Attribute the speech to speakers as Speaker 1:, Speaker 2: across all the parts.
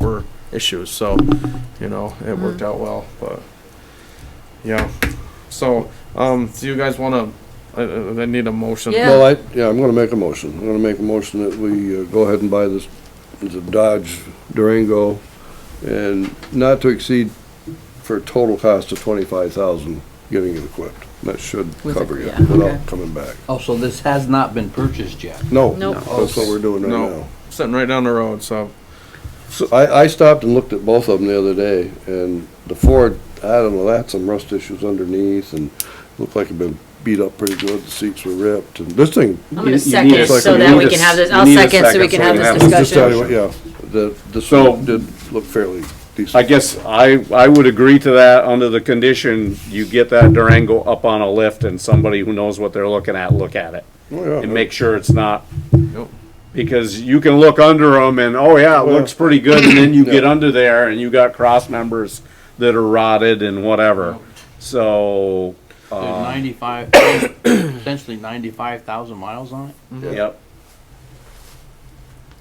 Speaker 1: were issues, so, you know, it worked out well, but, yeah. So, um, do you guys wanna, I, I I need a motion?
Speaker 2: Yeah.
Speaker 3: Well, I, yeah, I'm gonna make a motion. I'm gonna make a motion that we uh, go ahead and buy this, the Dodge Durango and not to exceed for a total cost of twenty-five thousand, getting it equipped. That should
Speaker 2: With-
Speaker 3: cover you
Speaker 2: yeah, okay.
Speaker 3: without coming back.
Speaker 4: Oh, so this has not been purchased yet?
Speaker 3: No,
Speaker 2: Nope.
Speaker 3: that's what we're doing right
Speaker 1: No.
Speaker 3: now.
Speaker 1: Sitting right down the road, so,
Speaker 3: So I, I stopped and looked at both of them the other day and the Ford, I don't know, that had some rust issues underneath and looked like it'd been beat up pretty good. The seats were ripped and this thing
Speaker 2: I'm
Speaker 5: You-
Speaker 2: gonna
Speaker 5: you need
Speaker 2: second
Speaker 5: a
Speaker 2: so
Speaker 3: second.
Speaker 2: that
Speaker 3: You
Speaker 2: we
Speaker 3: need a
Speaker 2: can have this,
Speaker 5: s-
Speaker 2: I'll
Speaker 5: you need a
Speaker 2: second so we
Speaker 5: second
Speaker 2: can
Speaker 5: so
Speaker 2: have
Speaker 5: we
Speaker 2: this
Speaker 5: have this
Speaker 3: Just tell you
Speaker 2: discussion.
Speaker 3: what, Yeah, the, the snow
Speaker 5: So-
Speaker 3: did look fairly decent.
Speaker 5: I guess I, I would agree to that under the condition you get that Durango up on a lift and somebody who knows what they're looking at, look at it.
Speaker 3: Oh,
Speaker 5: And
Speaker 3: yeah.
Speaker 5: make sure it's not,
Speaker 1: yep.
Speaker 5: because you can look under them and, oh yeah, it looks pretty good, and then you get
Speaker 3: Yeah.
Speaker 5: under there and you got cross members that are rotted and whatever. So,
Speaker 4: There's
Speaker 5: uh,
Speaker 4: ninety-five, essentially ninety-five thousand miles on it?
Speaker 5: yep.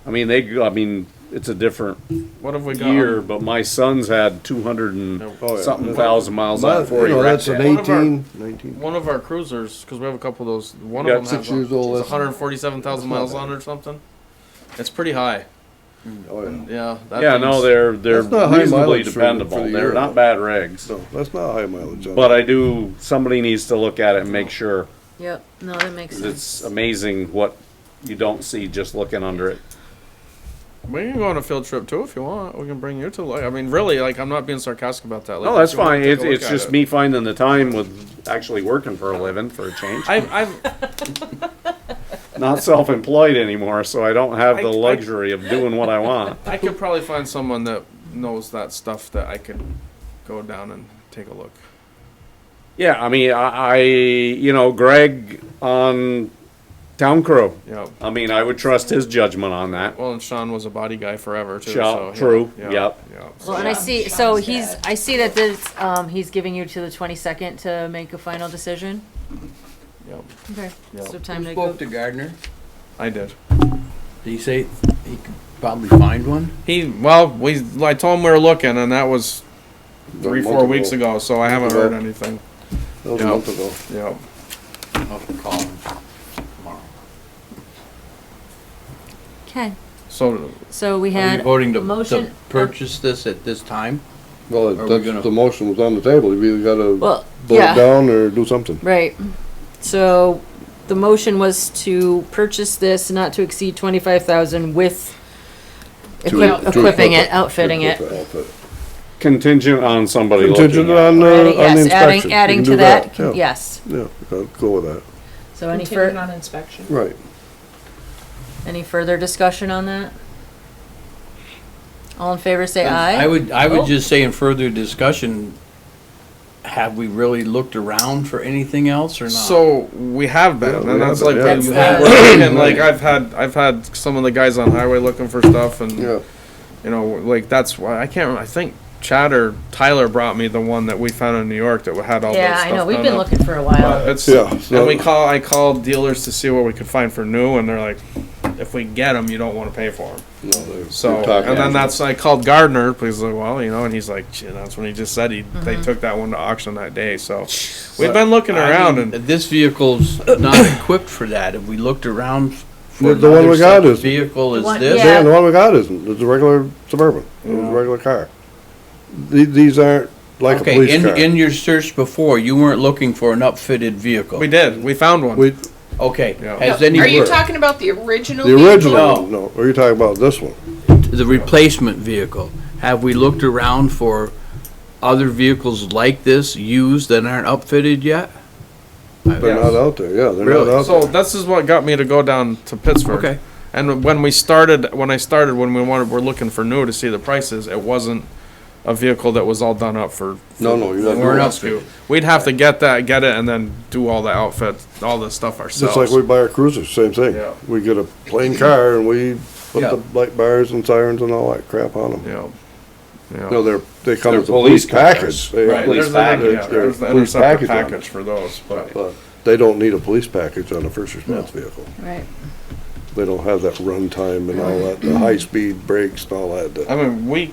Speaker 5: I mean, they, go- I mean, it's a different
Speaker 1: What have we got?
Speaker 5: year, but my son's had two hundred and
Speaker 1: Nope.
Speaker 3: Oh, yeah.
Speaker 5: something thousand miles
Speaker 3: But,
Speaker 5: on it before
Speaker 3: you
Speaker 5: he
Speaker 3: know,
Speaker 5: wrecked
Speaker 3: that's
Speaker 5: it.
Speaker 3: an
Speaker 1: One of our-
Speaker 3: 18, 19.
Speaker 1: One of our cruisers, cause we have a couple of those, one
Speaker 5: Yeah,
Speaker 1: of them
Speaker 3: six
Speaker 1: has
Speaker 3: years old,
Speaker 1: a
Speaker 3: that's-
Speaker 1: hundred and forty-seven thousand miles on it or something. It's pretty high,
Speaker 3: Oh, yeah.
Speaker 1: yeah. that
Speaker 5: Yeah, no,
Speaker 1: thing's-
Speaker 5: they're, they're
Speaker 3: That's not high
Speaker 5: reasonably
Speaker 3: mileage for- for
Speaker 5: dependable.
Speaker 3: the
Speaker 5: They're
Speaker 3: year,
Speaker 5: not
Speaker 3: though.
Speaker 5: bad rigs.
Speaker 3: No, that's not high mileage. on
Speaker 5: But
Speaker 1: uh,
Speaker 3: it.
Speaker 5: I do, somebody needs to look at it and make sure.
Speaker 2: Yep, no, that makes
Speaker 5: 'cause
Speaker 2: sense.
Speaker 5: It's amazing what you don't see just looking under it.
Speaker 1: We can go on a field trip too if you want. We can bring you to. Like, I mean, really, like I'm not being sarcastic about that. Like, if
Speaker 5: No, that's
Speaker 1: you wanna
Speaker 5: fine.
Speaker 1: take
Speaker 5: It's,
Speaker 1: a look
Speaker 5: it's
Speaker 1: at
Speaker 5: just
Speaker 1: it.
Speaker 5: me finding the time with actually working for a living for a change.
Speaker 1: I've, I've,
Speaker 5: Not self-employed anymore, so I don't have the
Speaker 1: I- I-
Speaker 5: luxury of doing what I want.
Speaker 1: I could probably find someone that knows that stuff that I could go down and take a look.
Speaker 5: Yeah, I mean, I, I, you know, Greg on Town Crew.
Speaker 1: Yeah.
Speaker 5: I mean, I would trust his judgment on that.
Speaker 1: Well, and Sean was a body guy forever too.
Speaker 5: Sean,
Speaker 1: so, yeah,
Speaker 5: true,
Speaker 1: Yeah,
Speaker 5: yep.
Speaker 1: yeah, so-
Speaker 2: Well, and I see, so he's, I see that this, um, he's giving you to the twenty-second to make a final decision.
Speaker 1: yep,
Speaker 2: Okay.
Speaker 1: Yeah.
Speaker 2: So time to go.
Speaker 4: Spoke to Gardner.
Speaker 1: I did.
Speaker 4: Did he say he could probably find one?
Speaker 1: He well, we I told him we were looking, and that was
Speaker 3: That
Speaker 1: three,
Speaker 3: month
Speaker 1: four weeks ago. So I haven't heard
Speaker 3: Ago.
Speaker 1: anything.
Speaker 3: That was a
Speaker 1: Yeah.
Speaker 3: month ago.
Speaker 1: Yeah.
Speaker 4: I'll call him tomorrow.
Speaker 2: Okay,
Speaker 1: So
Speaker 2: so we
Speaker 4: Are you
Speaker 2: had,
Speaker 4: voting to, to
Speaker 2: motion-
Speaker 4: purchase this at this time?
Speaker 3: Well,
Speaker 4: we gonna-
Speaker 3: that's, the motion was on the table. You either gotta
Speaker 2: well,
Speaker 3: vote it
Speaker 2: yeah,
Speaker 3: down or do something.
Speaker 2: right. So the motion was to purchase this not to exceed twenty-five thousand with
Speaker 3: To-
Speaker 2: equip-
Speaker 3: to
Speaker 2: equipping
Speaker 3: equip
Speaker 2: it, outfitting it.
Speaker 3: Outfit.
Speaker 5: Contingent on somebody looking
Speaker 3: Contingent
Speaker 5: at it.
Speaker 3: on, uh, on the
Speaker 2: Adding- Yes,
Speaker 3: inspection.
Speaker 2: adding,
Speaker 3: You
Speaker 2: adding
Speaker 3: can
Speaker 2: to
Speaker 3: do
Speaker 2: that,
Speaker 3: yeah.
Speaker 2: yes.
Speaker 3: Yeah, I'll go with that.
Speaker 2: So any
Speaker 6: Contingent
Speaker 2: fur,
Speaker 6: on inspection.
Speaker 3: Right.
Speaker 2: any further discussion on that? All in favor, say aye.
Speaker 4: I would, I would
Speaker 2: Oh.
Speaker 4: just say in further discussion, have we really looked around for anything else or not?
Speaker 1: So we have been,
Speaker 3: Yeah, we
Speaker 1: and that's
Speaker 3: have
Speaker 1: like
Speaker 3: been,
Speaker 1: we-
Speaker 2: yeah.
Speaker 1: we
Speaker 2: That's,
Speaker 1: were
Speaker 2: uh,
Speaker 1: looking, like I've had I've had some of the guys on highway looking for stuff, and
Speaker 3: Yeah.
Speaker 1: you know like that's why I can't. remember. I think Chad or Tyler brought me the one that we found in New York that had all.
Speaker 2: Yeah,
Speaker 1: that
Speaker 2: I
Speaker 1: stuff
Speaker 2: know, we've
Speaker 1: done
Speaker 2: been
Speaker 1: up.
Speaker 2: looking for a while.
Speaker 1: It's
Speaker 3: Yeah,
Speaker 1: and
Speaker 3: so-
Speaker 1: we call I called dealers to see what we could find for new, and they're like, if we get them, you don't want to pay for them.
Speaker 3: No, they're-
Speaker 1: So
Speaker 3: they're talking.
Speaker 1: and then that's I called Gardner because like well you know, and he's like Gee, that's when he just said he
Speaker 2: Mm-hmm.
Speaker 1: they took that one to auction that day. So we've been looking
Speaker 4: I
Speaker 1: around
Speaker 4: mean,
Speaker 1: and.
Speaker 4: This vehicle's not equipped for that. Have we looked around for
Speaker 3: The- the one
Speaker 4: another
Speaker 3: we got
Speaker 4: such
Speaker 3: is-
Speaker 4: Vehicle
Speaker 2: One-
Speaker 4: is this?
Speaker 2: yeah.
Speaker 3: Dan, the one we got isn't, it's a regular Suburban, it was a
Speaker 1: Yeah.
Speaker 3: regular car. The- These aren't like a
Speaker 4: Okay,
Speaker 3: police
Speaker 4: in,
Speaker 3: car.
Speaker 4: in your search before, you weren't looking for an upfitted vehicle?
Speaker 1: We did. We found one.
Speaker 3: We-
Speaker 4: Okay,
Speaker 1: Yeah.
Speaker 4: has
Speaker 6: No, Are you
Speaker 4: any,
Speaker 6: talking about the original?
Speaker 3: The
Speaker 6: vehicle?
Speaker 3: original,
Speaker 4: Oh.
Speaker 3: one, no, are you talking about this one?
Speaker 4: the replacement vehicle, have we looked around for other vehicles like this used that aren't upfitted yet?
Speaker 3: They're not out there, yeah, they're
Speaker 4: Really?
Speaker 3: not out
Speaker 1: So
Speaker 3: there.
Speaker 1: this is what got me to go down to Pittsburgh.
Speaker 4: Okay.
Speaker 1: And when we started, when I started, when we wanted, we're looking for new to see the prices. It wasn't a vehicle that was all done up for. for
Speaker 3: No, no, you're not
Speaker 1: for
Speaker 3: doing
Speaker 1: rescue. We'd have to get that, get it, and then do all the outfit, all this stuff
Speaker 3: Just
Speaker 1: ourselves.
Speaker 3: like we buy our cruisers, same thing.
Speaker 1: Yeah.
Speaker 3: We get a plain car and we put
Speaker 4: Yeah.
Speaker 3: the light bars and sirens and all that crap on them.
Speaker 1: Yeah. Yeah.
Speaker 3: No, they're, they come
Speaker 5: They're
Speaker 3: as a police
Speaker 5: police cars.
Speaker 3: package. They-
Speaker 1: Right,
Speaker 5: police
Speaker 1: there's the,
Speaker 5: package,
Speaker 1: yeah, there's the
Speaker 3: they're police
Speaker 1: interceptor
Speaker 3: package on
Speaker 1: package for those, but.
Speaker 3: But they don't need a police package on a first response vehicle.
Speaker 2: Right.
Speaker 3: They don't have that runtime and all that, the high-speed brakes and all that. that-
Speaker 1: I mean, we